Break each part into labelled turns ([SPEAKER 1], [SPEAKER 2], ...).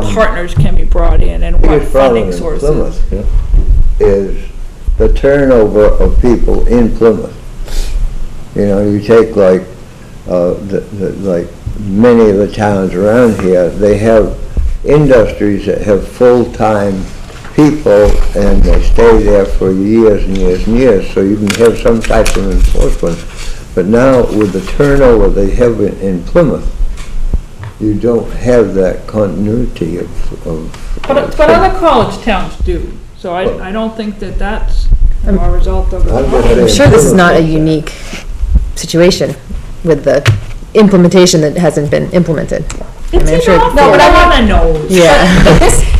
[SPEAKER 1] partners can be brought in and what
[SPEAKER 2] biggest problem
[SPEAKER 1] funding
[SPEAKER 2] in
[SPEAKER 1] sources.
[SPEAKER 2] Plymouth is the turnover of people in Plymouth. You know, you take like, uh, the, the, like many of the towns around here, they have industries that have full-time people and they stay there for years and years and years, so you can have some type of enforcement. But now with the turnover they have in- in Plymouth, you don't have that continuity of, of.
[SPEAKER 1] But, but other college towns do, so I, I don't think that that's you know, a result of.
[SPEAKER 2] I'm just saying-
[SPEAKER 3] I'm sure this is not a unique situation with the implementation that hasn't been implemented. I mean, I'm
[SPEAKER 1] It's
[SPEAKER 3] sure-
[SPEAKER 1] enough, but I want to know.
[SPEAKER 3] Yeah.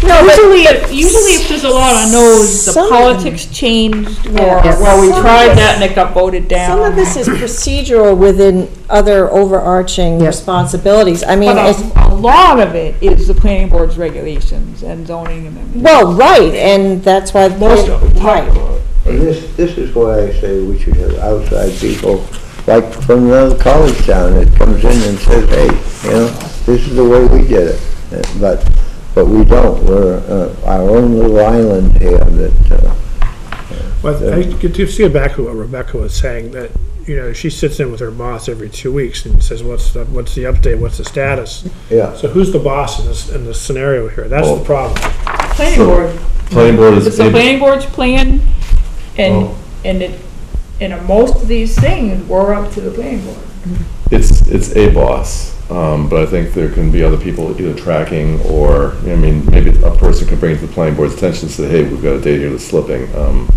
[SPEAKER 1] No, usually, if- usually if there's a lot of no's, the
[SPEAKER 4] Some-
[SPEAKER 1] politics changed, or,
[SPEAKER 3] Yeah.
[SPEAKER 1] well, we
[SPEAKER 4] Some of
[SPEAKER 1] tried
[SPEAKER 4] this-
[SPEAKER 1] that and it got voted down.
[SPEAKER 4] Some of this is procedural within other overarching
[SPEAKER 3] Yeah.
[SPEAKER 4] responsibilities. I mean,
[SPEAKER 1] But
[SPEAKER 4] it's,
[SPEAKER 1] a, a lot of it is the planning board's regulations and zoning amendments.
[SPEAKER 4] well, right, and that's why.
[SPEAKER 1] Most of it,
[SPEAKER 4] Right.
[SPEAKER 2] And This, this is why I say we should have outside people, like from another college town that comes in and says, hey, you know, this is the way we did it. Uh, But, but we don't, we're uh, our own little island here that, uh,
[SPEAKER 5] Well, I could you see back to what Rebecca was saying, that, you know, she sits in with her boss every two weeks and says, what's the, what's the update, what's the status?
[SPEAKER 2] yeah.
[SPEAKER 5] So who's the boss in this, in this scenario here? That's the problem.
[SPEAKER 1] Planning board,
[SPEAKER 6] Planning board is.
[SPEAKER 1] it's the planning board's plan, and,
[SPEAKER 6] Well-
[SPEAKER 2] Oh.
[SPEAKER 1] and it, and uh, most of these things were up to the planning board.
[SPEAKER 6] It's, it's a boss, um, but I think there can be other people either tracking or, I mean, maybe a person could bring it to the planning board's attention, and say, hey, we've got a date here that's slipping. um,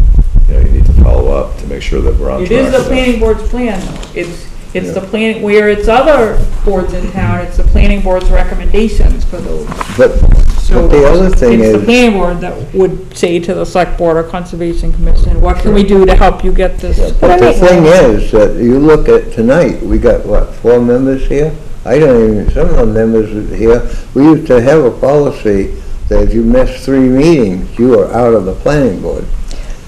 [SPEAKER 6] You know, you need to follow up to make sure that we're
[SPEAKER 2] Oh,
[SPEAKER 6] on
[SPEAKER 1] It
[SPEAKER 6] track.
[SPEAKER 1] is the
[SPEAKER 6] with that."
[SPEAKER 1] planning board's plan, though. It's, it's the plan, where it's other boards in town, it's the planning board's recommendations for those.
[SPEAKER 2] But, but the other thing
[SPEAKER 1] It's the
[SPEAKER 2] is,
[SPEAKER 1] planning board that would say to the select board or conservation commission, what can we do to help you get this?
[SPEAKER 2] but the thing is that you look at tonight, we got what, four members here? I don't even, some of the members are here, we used to have a policy that if you missed three meetings, you are out of the planning board.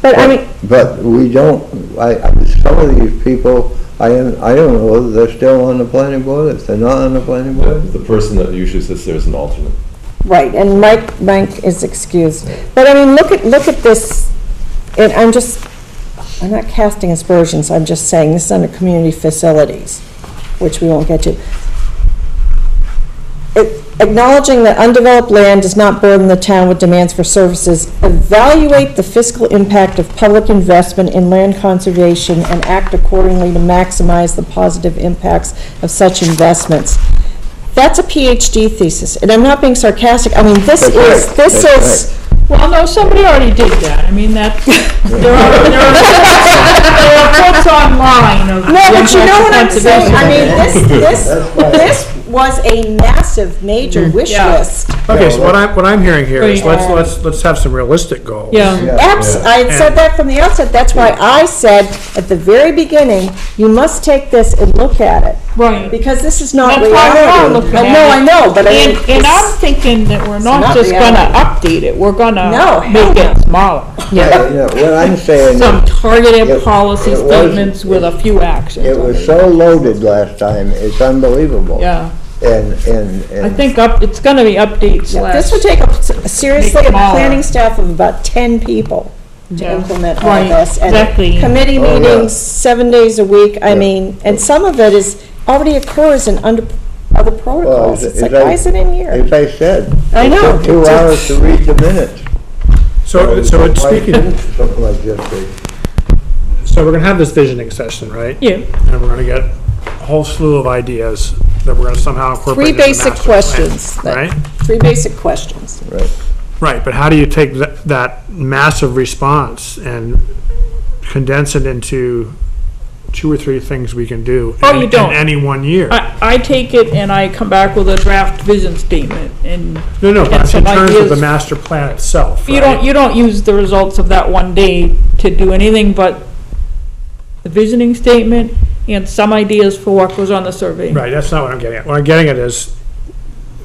[SPEAKER 3] But I mean,
[SPEAKER 2] But we don't, I, I- some of these people, I, am- I don't know whether they're still on the planning board, if they're not on the planning
[SPEAKER 6] Yeah,
[SPEAKER 2] board.
[SPEAKER 6] The person that usually sits there is an alternate.
[SPEAKER 4] Right, and Mike, Mike is excused. But I mean, look at, look at this, and I'm just, I'm not casting aspersions, I'm just saying this is under community facilities, which we won't get to. It- Acknowledging that undeveloped land does not burden the town with demands for services, evaluate the fiscal impact of public investment in land conservation and act accordingly to maximize the positive impacts of such investments. That's a PhD thesis, and I'm not being sarcastic, I mean, this
[SPEAKER 2] That's right,
[SPEAKER 4] is, this
[SPEAKER 2] that's
[SPEAKER 4] is,
[SPEAKER 1] Well, no, somebody already did that. I mean, that's, there are, there are there are books online of.
[SPEAKER 4] No, but you know what I'm saying, I mean, this, this,
[SPEAKER 2] That's right.
[SPEAKER 4] this was a massive, major wish
[SPEAKER 1] Mm-hmm. Yeah.
[SPEAKER 4] list.
[SPEAKER 5] Okay, so what I'm, what I'm hearing here is, let's,
[SPEAKER 4] Yeah.
[SPEAKER 5] let's, let's have some realistic goals.
[SPEAKER 1] Yeah.
[SPEAKER 4] Abs, I had said that from the outset, that's why I said at the very beginning, you must take this and look at it,
[SPEAKER 1] Right.
[SPEAKER 4] because this is not
[SPEAKER 1] That's why we're all
[SPEAKER 4] reality.
[SPEAKER 1] looking
[SPEAKER 4] Uh,
[SPEAKER 1] at
[SPEAKER 4] No,
[SPEAKER 1] it.
[SPEAKER 4] I know, but I mean,
[SPEAKER 1] And, and I'm
[SPEAKER 4] it's-
[SPEAKER 1] thinking that we're not
[SPEAKER 4] not
[SPEAKER 1] just gonna
[SPEAKER 4] reality.
[SPEAKER 1] update it, we're
[SPEAKER 4] No,
[SPEAKER 1] gonna
[SPEAKER 4] hell
[SPEAKER 1] make it smaller.
[SPEAKER 2] Yeah, you know, What I'm saying,
[SPEAKER 1] Some
[SPEAKER 2] is,
[SPEAKER 1] targeted
[SPEAKER 2] It-
[SPEAKER 1] policy
[SPEAKER 2] it was-
[SPEAKER 1] statements with a few actions.
[SPEAKER 2] it was so loaded last time, it's unbelievable.
[SPEAKER 1] Yeah,
[SPEAKER 2] And, and,
[SPEAKER 1] I
[SPEAKER 2] and
[SPEAKER 1] think up, it's gonna be updates
[SPEAKER 4] yeah,
[SPEAKER 1] slash.
[SPEAKER 4] this would take up s- seriously
[SPEAKER 1] Make
[SPEAKER 4] a
[SPEAKER 1] them all.
[SPEAKER 4] planning staff of about ten people to
[SPEAKER 1] Yeah.
[SPEAKER 4] implement all
[SPEAKER 1] Right,
[SPEAKER 4] of this. and
[SPEAKER 1] exactly.
[SPEAKER 4] Committee
[SPEAKER 2] Oh, yeah.
[SPEAKER 4] meetings, seven days a week, I
[SPEAKER 2] Yeah.
[SPEAKER 4] mean, and some of it is, already occurs in under, other protocols.
[SPEAKER 2] is it-
[SPEAKER 4] It's like,
[SPEAKER 2] is that-
[SPEAKER 4] why is it in here?
[SPEAKER 2] as I said,
[SPEAKER 4] I
[SPEAKER 2] it
[SPEAKER 4] know.
[SPEAKER 2] took two hours to read the minutes.
[SPEAKER 5] So, so it's speaking,
[SPEAKER 2] Something like this,
[SPEAKER 5] so we're gonna have this visioning session, right?
[SPEAKER 1] Yeah.
[SPEAKER 5] And we're gonna get a whole slew of ideas that we're gonna somehow incorporate
[SPEAKER 4] Three
[SPEAKER 5] into the
[SPEAKER 4] basic
[SPEAKER 5] master plan,
[SPEAKER 4] questions that-
[SPEAKER 5] Right?
[SPEAKER 4] Three basic questions.
[SPEAKER 2] right.
[SPEAKER 5] Right, but how do you take that, that massive response and condense it into two or three things we can do?
[SPEAKER 1] Oh,
[SPEAKER 5] in-
[SPEAKER 1] you don't.
[SPEAKER 5] In any one year?
[SPEAKER 1] I, I take it and I come back with a draft vision statement and
[SPEAKER 5] No, no,
[SPEAKER 1] and
[SPEAKER 5] but in
[SPEAKER 1] some
[SPEAKER 5] terms of the
[SPEAKER 1] ideas.
[SPEAKER 5] master plan itself,
[SPEAKER 1] You don't,
[SPEAKER 5] right?
[SPEAKER 1] you don't use the results of that one day to do anything but the visioning statement and some ideas for what goes on the survey.
[SPEAKER 5] Right, that's not what I'm getting at. What I'm getting at is,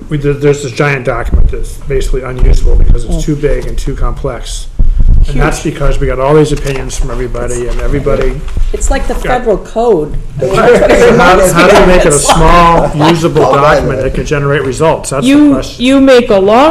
[SPEAKER 5] we, did- there's this giant document that's basically unusable because
[SPEAKER 1] Mm.
[SPEAKER 5] it's too big and too complex. And that's because we got all these opinions from everybody and everybody,
[SPEAKER 4] It's like the federal code.
[SPEAKER 5] how how do we make it a
[SPEAKER 4] It's like-
[SPEAKER 5] small, usable
[SPEAKER 2] Oh, by the
[SPEAKER 5] document
[SPEAKER 2] way.
[SPEAKER 5] that can generate results? That's the
[SPEAKER 1] You,
[SPEAKER 5] question.
[SPEAKER 1] you make a long